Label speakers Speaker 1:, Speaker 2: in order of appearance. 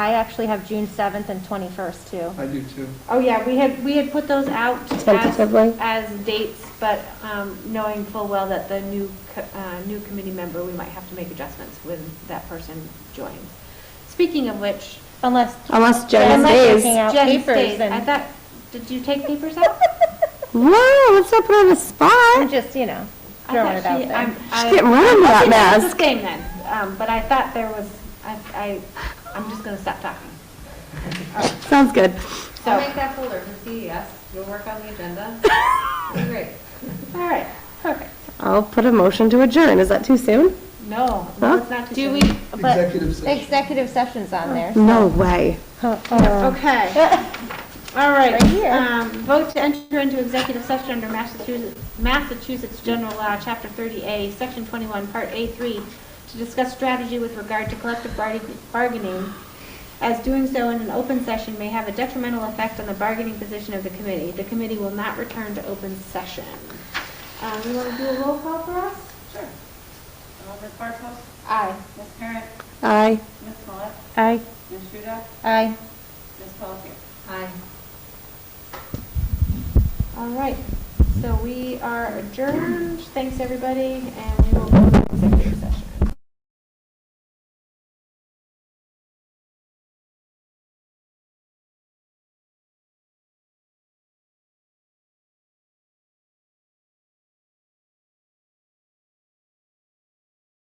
Speaker 1: I actually have June 7th and 21st too.
Speaker 2: I do too.
Speaker 3: Oh, yeah, we had, we had put those out as,
Speaker 4: Tentatively?
Speaker 3: as dates, but um, knowing full well that the new, co- uh, new committee member, we might have to make adjustments when that person joins. Speaking of which,
Speaker 1: Unless,
Speaker 4: Unless Jen
Speaker 1: unless you're taking
Speaker 4: stays.
Speaker 1: out
Speaker 3: Jen
Speaker 1: papers
Speaker 3: stays, I
Speaker 1: and,
Speaker 3: thought, did you take papers out?
Speaker 4: Whoa, let's not put her on the
Speaker 1: I'm
Speaker 4: spot.
Speaker 1: just, you know,
Speaker 3: I
Speaker 1: throwing
Speaker 3: thought
Speaker 1: it out
Speaker 3: she-
Speaker 1: there.
Speaker 3: I'm- I-
Speaker 4: She's getting rid of that
Speaker 3: Okay, then it's
Speaker 4: mask.
Speaker 3: the same then, Um, but I thought there was, I, I, I'm just gonna stop talking.
Speaker 4: Sounds good.
Speaker 3: So,
Speaker 5: I'll make that folder for CES, you'll work on the agenda. Be Great.
Speaker 3: all right, perfect.
Speaker 4: I'll put a motion to adjourn. Is that too soon?
Speaker 3: No, no,
Speaker 4: Huh?
Speaker 3: it's not too
Speaker 1: Do
Speaker 3: soon.
Speaker 1: we, but
Speaker 2: Executive session.
Speaker 1: executive session's on there.
Speaker 4: No way.
Speaker 3: Okay. All right.
Speaker 1: Right here.
Speaker 3: Um, Vote to enter into executive session under Massachusetts, Massachusetts General Law, Chapter 30A, Section 21, Part A3, to discuss strategy with regard to collective bargaining- bargaining, as doing so in an open session may have a detrimental effect on the bargaining position of the committee. The committee will not return to open session. Um, You want to do a roll call for us?
Speaker 5: Sure. Alder Bartos,
Speaker 3: Aye.
Speaker 5: Ms. Parent,
Speaker 4: Aye.
Speaker 5: Ms. Smollett,
Speaker 1: Aye.
Speaker 5: Ms. Shuda,
Speaker 1: Aye.
Speaker 5: Ms. Pelletier. Aye.
Speaker 3: All right. So we are adjourned. Thanks, everybody, and we will go to executive session.